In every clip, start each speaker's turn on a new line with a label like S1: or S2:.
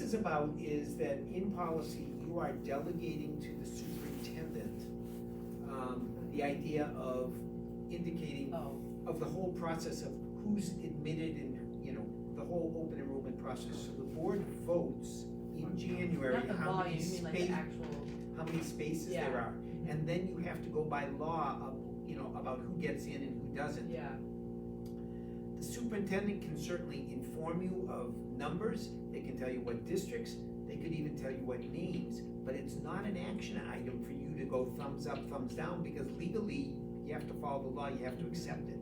S1: is about is that in policy, you are delegating to the superintendent, um, the idea of indicating
S2: Oh,
S1: of the whole process of who's admitted and, you know, the whole open enrollment process. So the board votes in January
S2: not the
S1: how many
S2: volume, you mean like the
S1: spaces,
S2: actual,
S1: how many spaces there are.
S2: Yeah.
S1: And then you have to go by law, of, you know, about who gets in and who doesn't.
S2: yeah,
S1: The superintendent can certainly inform you of numbers, they can tell you what districts, they could even tell you what names, but it's not an action item for you to go thumbs up, thumbs down, because legally, you have to follow the law, you have to accept it.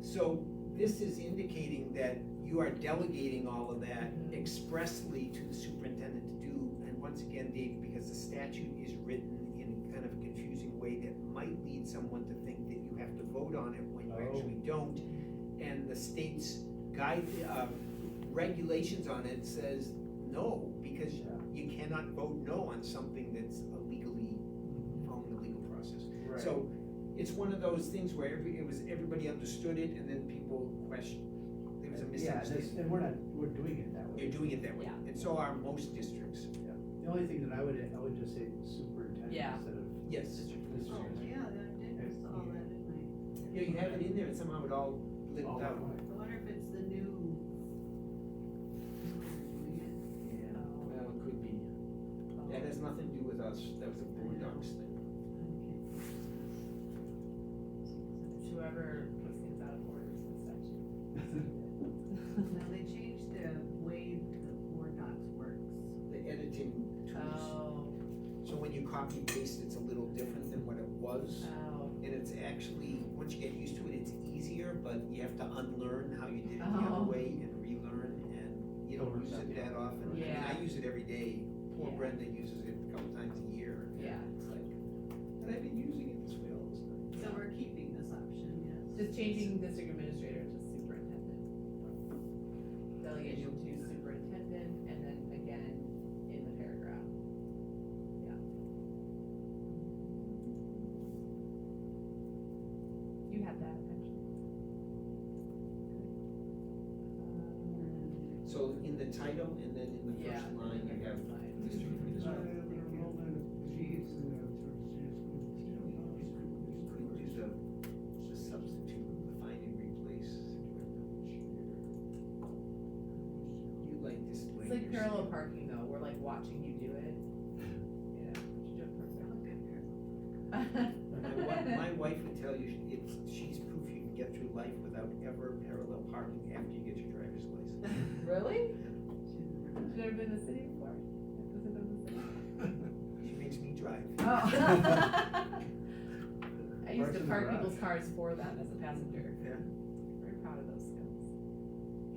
S1: So this is indicating that you are delegating all of that expressly to the superintendent to do, and once again, Dave, because the statute is written in kind of a confusing way that might lead someone to think that you have to vote on it when you
S3: Oh.
S1: actually don't. And the state's guide, uh, regulations on it says no, because you cannot vote no on something that's illegally, following the legal process.
S3: Right.
S1: So it's one of those things where every, it was, everybody understood it and then people questioned, there was a
S3: Yeah, that's,
S1: misunderstanding.
S3: and we're not, we're doing it that
S1: You're
S3: way.
S1: doing it that way,
S2: Yeah.
S1: and so are most districts,
S3: The only thing that I would, I would just say superintendent
S2: Yeah.
S3: instead of
S1: yes.
S3: this.
S4: Oh, yeah, I did saw that, didn't
S1: Yeah, you have it in there and somehow it all lived
S3: All that
S1: out.
S3: way.
S4: I? I wonder if it's the new.
S1: Yeah,
S4: doing it. Oh,
S1: well, it could be, that has nothing to do with us, that was a board docs thing.
S4: okay.
S2: It's whoever puts things out of order is the section.
S4: Now, they changed the way the board docs works.
S1: The editing tools,
S2: Oh,
S1: so when you copy and paste, it's a little different than what it was.
S2: oh,
S1: And it's actually, once you get used to it, it's easier, but you have to unlearn how you did it the other
S2: Oh.
S1: way and relearn, and you don't use it that often. I mean,
S2: Yeah.
S1: I use it every day, poor
S2: Yeah.
S1: Brenda uses it a couple times a year. and
S2: Yeah.
S1: It's like, and I've been using it this way all this time.
S4: So we're keeping this option, yes.
S2: just changing district administrator to superintendent. Delegation to superintendent, and then again in the paragraph. Yeah. You had that, actually. Um,
S4: Um,
S1: So in the title and then in the
S2: Yeah.
S1: first line, you have district administrator. You could do the, the substitute, the find and replace. You like this
S2: It's
S1: language.
S2: like parallel parking though, we're like watching you do it. Yeah. you do it
S4: I look at her.
S2: perfect.
S1: My wife, my wife would tell you, she- it's, she's proof you can get through life without ever parallel parking after you get your driver's license.
S2: Really?
S4: She's-
S2: You've never been in the city before? Does it live in the city?
S1: She makes me drive.
S2: Oh. I used
S3: Parks
S2: to
S3: and
S2: park
S3: Rec.
S2: people's cars for them as a passenger.
S1: Yeah.
S2: Very proud of those skills.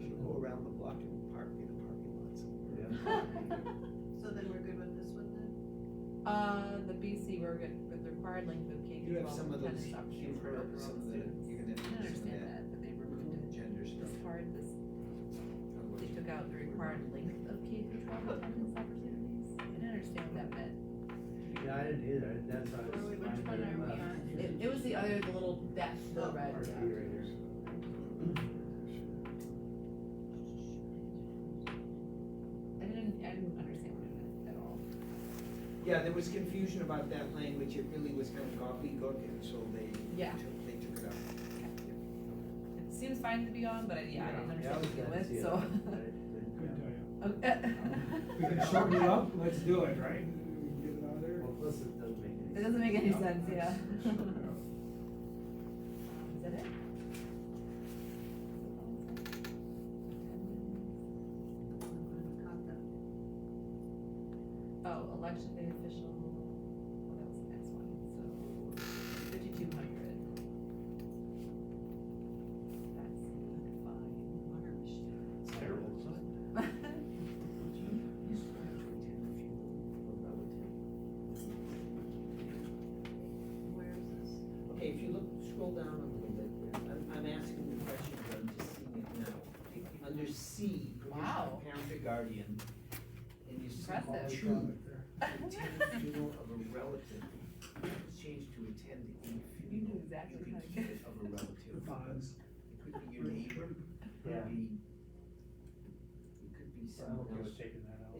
S1: She'll go around the block and park in a parking lot somewhere.
S4: So then we're good with this one then?
S2: Uh, the BC, we're good, with required length of K
S1: You
S2: through
S1: have some
S2: twelve
S1: of
S2: attendance
S1: those,
S2: options
S1: you've
S2: for
S1: heard of
S2: overall
S1: some of the,
S2: students.
S1: you're gonna
S2: I
S1: have some of
S2: understand
S1: that Mm-hmm.
S2: that, but they removed it.
S1: gender stuff.
S2: This part, this,
S1: otherwise
S2: they took out the required length of K through twelve attendance opportunities. I didn't understand what that meant.
S3: Yeah, I didn't either, that's why I was.
S4: Which one are we on?
S2: It, it was the other, the little dash, the
S4: Oh,
S2: red.
S3: Or
S2: yeah.
S3: be right here.
S2: I didn't, I didn't understand what it meant at all.
S1: Yeah, there was confusion about that language, it really was kind of gobbledygook, and so they
S2: Yeah.
S1: took, they took it out.
S2: It seems fine to be on, but I, yeah, I didn't
S3: Yeah, I
S2: understand
S3: was
S2: what it
S3: glad to
S2: was,
S3: see it.
S2: so.
S3: I- I-
S2: Okay.
S5: We can shorten it up, let's do it, right? Get it out of there.
S3: Well, plus it doesn't make any.
S2: It doesn't make any
S5: Yep,
S2: sense, yeah.
S5: that's-
S2: Is
S5: shorten it up.
S2: that it?
S4: I wouldn't have caught that.
S2: Oh, election day official, well, that was the next one, so fifty-two hundred. That's fine.
S4: Water machine.
S3: It's terrible, isn't it?
S4: Where is this?
S1: Okay, if you look, scroll down a little bit, I'm, I'm asking the question, but I'm just seeing it now. Under C, provision
S2: Wow.
S1: of parent or guardian, and you see
S2: Impressive.
S1: two, attend the funeral of a relative, it's changed to attend a
S2: You
S1: funeral.
S2: knew exactly
S1: You could
S2: how to
S1: keep
S2: get-
S1: it of a
S5: The
S1: relative,
S5: bonds.
S1: it could be your neighbor, it
S3: Yeah.
S1: could be, it could be someone else.
S3: taking